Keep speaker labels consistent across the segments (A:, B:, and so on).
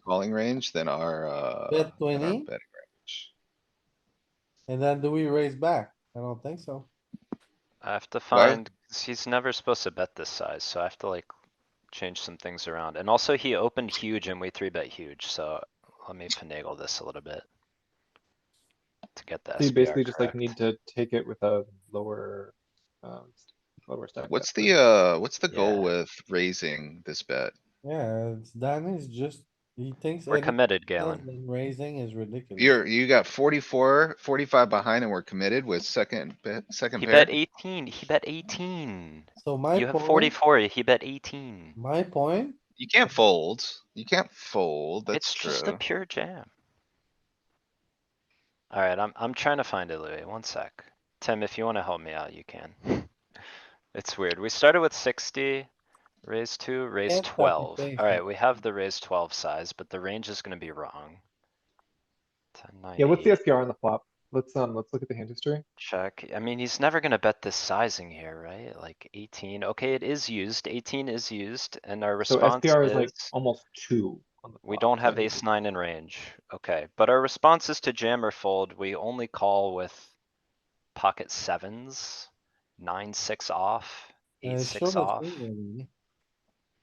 A: calling range than our, uh.
B: Bet
A: than our
B: 20?
A: betting range.
B: And then do we raise back? I don't think so.
C: I have to
A: Why?
C: find, 'cause he's never supposed to bet this size, so I have to like change some things around. And also he opened huge and we three bet huge, so let me finagle this a little bit. To get that.
D: You basically just like need to take it with a lower, um, lower stack. depth,
A: What's
D: right?
A: the, uh, what's the goal
C: Yeah.
A: with raising this bet?
B: Yeah, it's- Danny's just, he thinks.
C: We're
B: any
C: committed,
B: else
C: Galen.
B: than Raising is ridiculous.
A: You're, you got 44, 45 behind and we're committed with second, bet- second
C: He
A: pair.
C: bet eighteen, he bet eighteen.
B: So my.
C: You have
B: point-
C: forty-four, he bet eighteen.
B: My point,
A: You can't fold. You can't fold. That's
C: It's just a
A: true.
C: pure jam. Alright, I'm, I'm trying to find it, Louis. One sec. Tim, if you wanna help me out, you can. It's weird. We started with sixty, raise two, raise
B: Can't fucking
C: twelve.
B: think.
C: Alright, we have the raise twelve size, but the range is gonna be wrong. Ten, nine,
D: Yeah, what's the
C: eight,
D: SPR on the flop? Let's, um, let's look at the hand history.
C: check. I mean, he's never gonna bet this sizing here, right? Like eighteen. Okay, it is used. Eighteen is used and our
D: So
C: response
D: SPR is like
C: is.
D: almost two. on the
C: We
D: flop,
C: don't
D: so
C: have
D: it-
C: ace nine in range, okay, but our response is to jam or fold, we only call with pocket sevens, nine, six off,
B: uh,
C: eight,
B: show
C: six
B: the
C: off,
B: thing.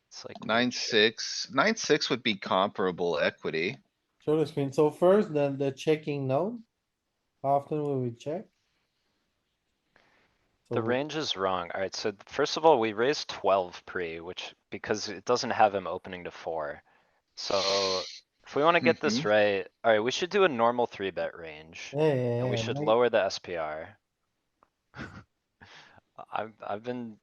C: it's like.
A: Nine,
C: weird shit.
A: six, nine, six would be comparable equity.
B: Show the screen. So first, then the checking note. How Often will we check?
C: The
B: So we-
C: range is wrong, alright, so th- first of all, we raised twelve pre, which, because it doesn't have him opening to four. So, if we wanna get
A: Mm-hmm.
C: this right, alright, we should do a normal three bet range.
B: Yeah, yeah,
C: And we
B: yeah,
C: should
B: my-
C: lower the SPR. I've, I've been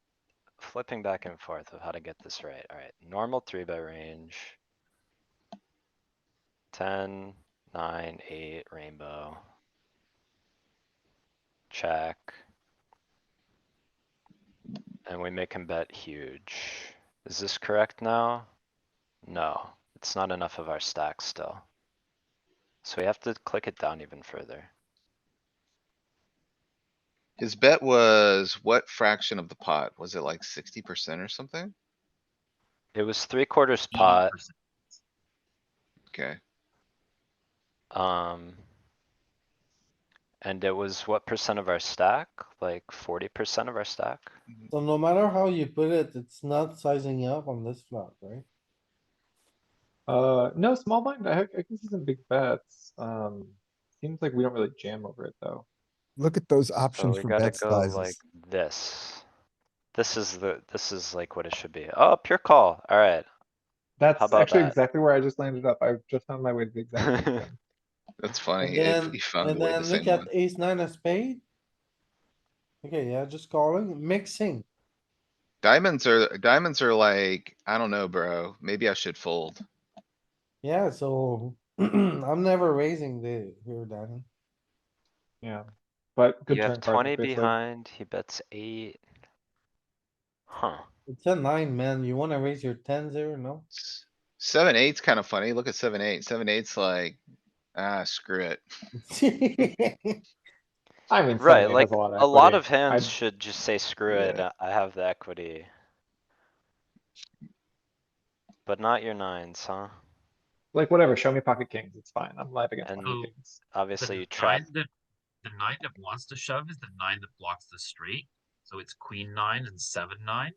C: flipping back and forth of how to get this right. Alright, normal three bet range. Ten, nine, eight, rainbow. Check. And we make him bet huge. Is this correct now? No, it's not enough of our stack still. So we have to click it down even further.
A: His bet was what fraction of the pot? Was it like sixty percent or something?
C: It was three quarters pot,
A: Okay,
C: um. And it was what percent of our stack? Like forty percent of our stack?
B: So no matter how you put it, it's not sizing up on this flop, right?
D: Uh, no, small blind, I, I can see some big bets. Um, seems like we don't really jam over it though.
E: Look at those
C: So
E: options
C: we
E: for
C: gotta
E: bet
C: go like
E: sizes.
C: this. This is the, this is like what it should be. Oh, pure call, alright.
D: That's
C: about
D: actually
C: that?
D: exactly where I just landed up. I've just found my way to the exact. same thing.
A: that's funny.
B: And
A: If
B: then,
A: he found
B: and
A: the way the
B: then
A: same
B: look
A: one.
B: at ace nine of spade. Okay, yeah, just calling, mixing.
A: Diamonds are, diamonds are like, I don't know, bro. Maybe I should fold.
B: Yeah, so I'm never raising the here, Danny.
D: Yeah, but good
C: You
D: turn
C: have
D: card.
C: twenty
D: if it's, like,
C: behind, he bets eight. Huh,
B: It's a nine, man. You wanna raise your tens there, no?
A: S- Seven, eight's kinda funny. Look at seven, eight. Seven, eight's like, ah, screw it.
D: I mean,
C: Right,
D: seven, eight
C: like,
D: has a lot of.
C: a lot
D: equity.
C: of hands
D: I'd-
C: should just say screw it,
D: Yeah.
C: I have the equity. But not your nines, huh?
D: Like, whatever, show me pocket kings, it's fine, I'm live against
C: And-
D: pocket kings.
F: The
C: Obviously you
F: nine
C: trap
F: that- The nine that wants to shove is the nine that blocks the straight, so it's queen nine and seven nine,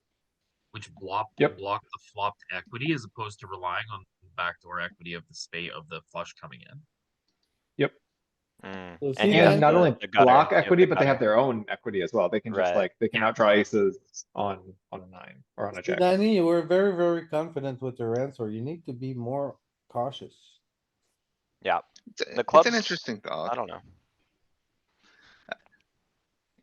F: which block,
D: Yep.
F: block the flopped equity as opposed to relying on the backdoor equity of the spade of the flush coming in.
C: Mm,
B: So
C: and
B: see
C: you
B: that-
D: And
C: have
D: not
C: the-
D: only
C: the gutter,
D: block
C: you have
D: equity,
C: the
D: but they have
C: gutter.
D: their own equity as well, they can just
C: Right.
D: like, they can outdraw aces on, on a nine, or on a
B: See,
D: jack.
B: Danny, you were very, very confident with your answer. You need to be more cautious.
A: It's a-
C: The
A: It's an
C: clubs-
A: interesting
C: I
A: thought.
C: don't know.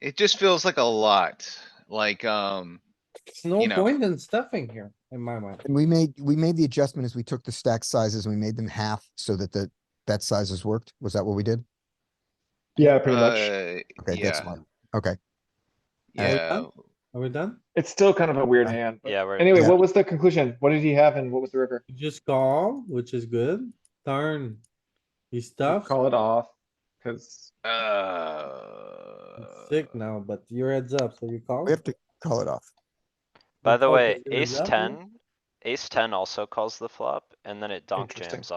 A: It just feels like a lot, like, um,
B: There's no
A: You know.
B: point in stuffing here, in my mind.
E: And we made, we made the adjustment as we took the stack sizes and we made them half so that the bet sizes worked. Was that what we did?
D: Yeah, pretty much,
A: uh,
E: Okay, that's
A: Yeah.
E: smart. Okay,
A: yeah.
B: Are we done?
D: it's still kind of a weird hand, but-
C: Yeah, we're.
D: anyway,
E: Yeah.
D: what was the conclusion? What did he have and what was the river?
B: You Just call, which is good. Turn. He stuffed.
D: Call it off, cuz
A: Uh.
B: It's Sick now, but your heads up, so uh, you call.
E: we have to call it off.
C: By the
B: Call
C: way,
B: because you're
C: ace
B: up, yeah?
C: ten, ace ten also calls the flop, and then it donk
D: Interesting.
C: jams